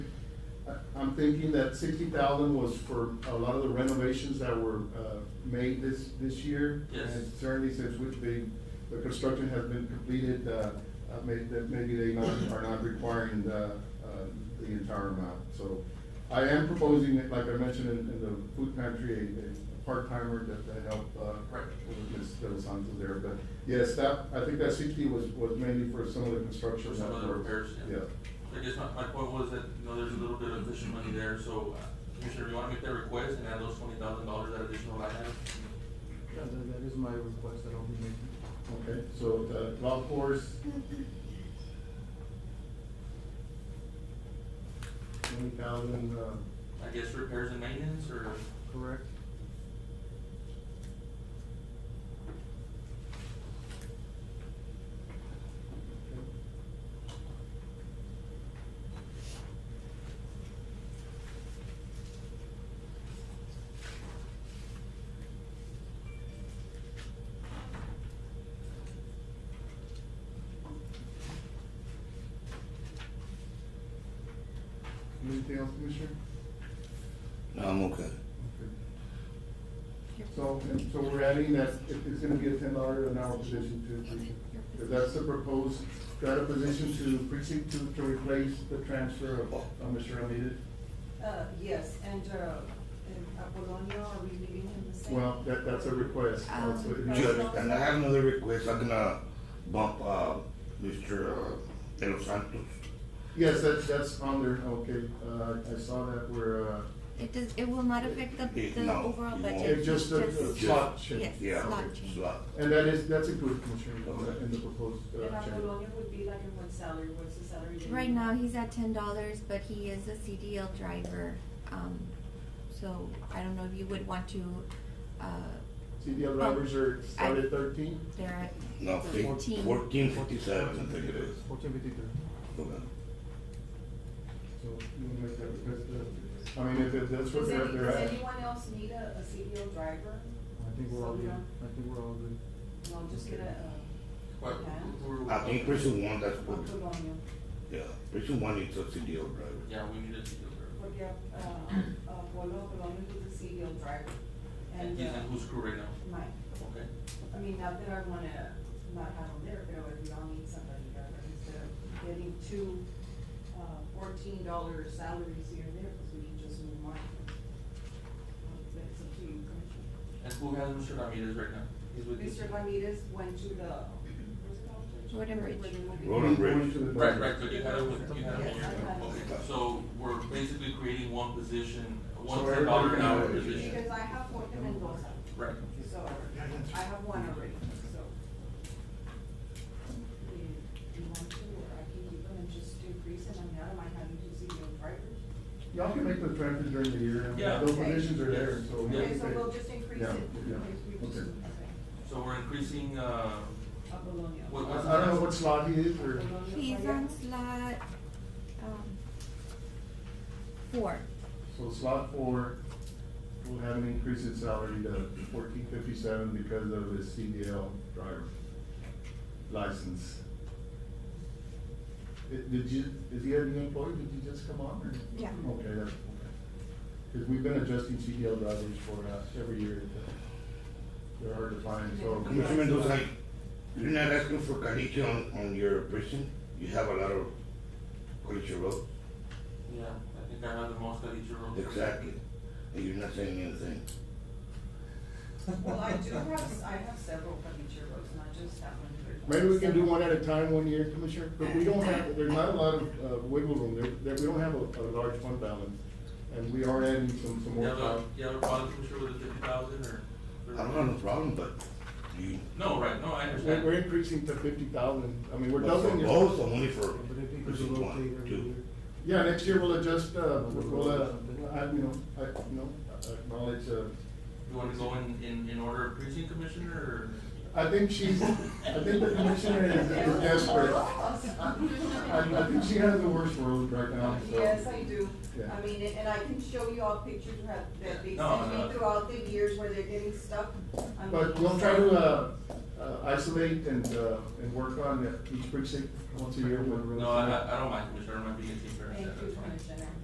I'm thinking that sixty thousand was for a lot of the renovations that were, uh, made this, this year. Yes. And certainly since which the, the construction has been completed, uh, uh, may, that maybe they not, are not requiring the, uh, the entire amount. So I am proposing, like I mentioned in, in the food pantry, a, a part-timer that, that help, uh, Right. with Ms. De Los Santos there, but yes, that, I think that sixty was, was mainly for some of the construction. For some of the that were- repairs, yeah. I guess my, my point was that, you know, there's a little bit of additional money there, so uh, Commissioner, you wanna make that request and add those twenty thousand dollars, that additional line item? Yeah, that, that is my request that I'll be making. Okay, so the golf course, Twenty thousand, uh, I guess repairs and maintenance, or, correct? anything else, Commissioner? No, I'm okay. So, and so we're adding that it- it's gonna be a ten dollar an hour position to precinct. If that's the proposed, got a position to precinct to, to replace the transfer of, uh Mr. Ramirez. Uh, yes, and, uh, and Apolonio, are we leaving him the same? Well, that, that's a request. That's what it is. Judge, and I have another request, I'm gonna bump, uh, Mr. uh, De Los Santos. Yes, that's, that's on there, okay, uh, I saw that where, uh, It does, it will not affect the, It- the no, overall it won't. budget. it's just a a slot change. Yes, Yeah, slot change. slot. And that is, that's included, Commissioner, Okay. in the proposed, And uh, change. Apolonio would be like in what salary, what's the salary? that Right you- now, he's at ten dollars, but he is a CDL driver, um, so I don't know if you would want to, uh, CDL drivers are started thirteen? they're No, at fif- fifteen. fourteen fifty-seven, I think it is. Fourteen fifty-three. Okay. So you wanna make that request, uh, I mean, if it- that's what Does they're, any, they're does at. anyone else need a, a CDL driver? I think we're all good. I think we're all good. No, I'm just gonna, uh, what, who- who- I think precinct one, that's what, Apolonio, yeah, precinct one is a CDL driver. Yeah, we need a CDL porque, uh, Apollo, Apolonio is a CDL driver. And And, he's uh, in whose crew right now? my, Okay, I mean, not that I wanna not have him there, but we all need somebody there, but instead of getting two, uh, fourteen dollar salaries here and there, because we can just move on. That's up to you, Commissioner. and who has Mr. Ramirez right now? He's with you? Mr. Ramirez went to the, what's it called? Road and Bridge. Road and Bridge. Going to the- Right, right, but you had it with, you had it in Yes, your, I have it. okay, so we're basically creating one position, one So ten dollar an hour everybody- position. Because I have one in Mendoza, Right, so I have one already, so. Do you want to, or I can keep them and just increase it, I'm not, am I having to see your drivers? Y'all can make the transfer during the year, I mean, Yeah. those positions are there, so. Yeah. Okay, so we'll just increase it. Yeah, yeah, We just- okay. so we're increasing, uh, A Bologna. What- I I don't know what slot he is, or, Bologna, He's Maria. on slot, um, four. so slot four will have an increase in salary to fourteen fifty-seven because of his CDL driver license. Eh, Did did you, is he a new employee, did you just come on, or? Yeah. Okay, that's, okay. Because we've been adjusting CDL drivers for, uh, every year, they're hard to find, so. Commissioner Mendoza, you're not asking for caliche on, on your precinct? You have a lot of caliche road? yeah, I think I have the most at each row. Exactly. And you're not saying anything. Well, I do have, I have several from each year, it's not just that one. Maybe we can do one at a time one year, Commissioner, but we don't have, there's not a lot of uh, wiggle room, there, there, we don't have a, a large fund balance. And we are adding some, some You more have a, time. you have a problem, Commissioner, with the fifty thousand or? I don't have no problem, but you. No, right, no, I We're, we're understand. increasing to fifty thousand, I mean, we're but doubling For it. both, I'm only for But I think we precinct should rotate one, every two. year. Yeah, next year we'll adjust, uh, we'll, uh, I, you know, I, you know, I acknowledge, uh, You wanna go in, in, in order of precinct, Commissioner, or? I think she's, I think the Commissioner is is desperate. I, I think she has the worst world right now, so. Yes, I do. Yeah. I mean, and- and I can show you all pictures that that they No, sent no. me throughout the years where they're getting stuck. I But mean, we'll try to, uh, uh, isolate and, uh, and work on each precinct once a year. No, I, I I don't mind, Commissioner, I don't mind being a team player. Thank you, that's fine. Commissioner.